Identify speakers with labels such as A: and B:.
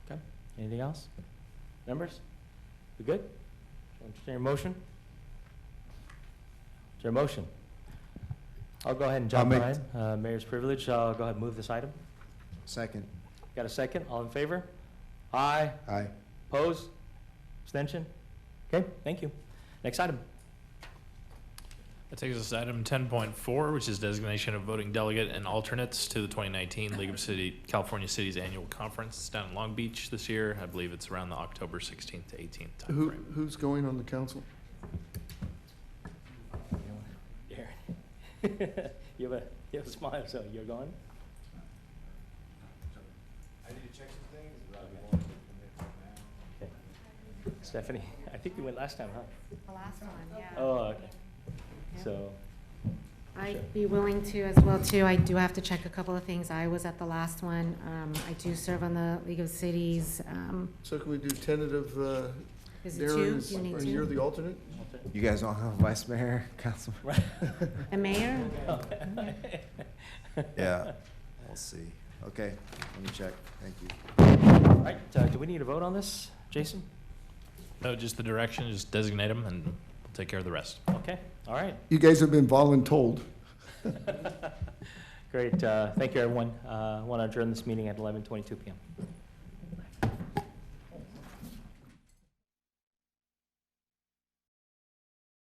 A: Okay, anything else? Members, we good? Entertain your motion? Is there a motion? I'll go ahead and jump
B: I'll
A: right
B: make-
A: in. Uh, Mayor's privilege, I'll go ahead and move this item.
B: Second.
A: Got a second? All in favor? Aye.
B: Aye.
A: Pose? Abstention? Okay, thank you. Next item.
C: That takes us to item ten point four, which is designation of voting delegate and alternates to the twenty nineteen League of City, California Cities Annual Conference. It's down in Long Beach this year. I believe it's around the October sixteenth to eighteenth
D: Who,
C: timeframe.
D: who's going on the council?
A: Darren. You have a, you have a smile, so you're gone? I need to check some things, Stephanie, I think you went last time, huh?
E: The last one, yeah.
A: Oh, okay,
E: Yeah.
A: so,
E: I'd be willing to as well, too. I do have to check a couple of things. I was at the last one. Um, I do serve on the League of Cities. Um,
D: So can we do tentative, uh,
E: is it
D: Darren,
E: two?
D: is-
E: Do you need
D: and you're
E: two?
D: the alternate?
B: You guys don't have a vice mayor, council?
A: right.
E: The mayor?
B: Yeah, we'll see. Okay, let me check. Thank you.
A: All right, uh, do we need a vote on this, Jason?
C: No, just the direction, just designate them and we'll take care of the rest.
A: Okay, all right.
D: You guys have been voluntold.
A: Great, uh, thank you, everyone. Uh, I want to adjourn this meeting at eleven twenty-two PM.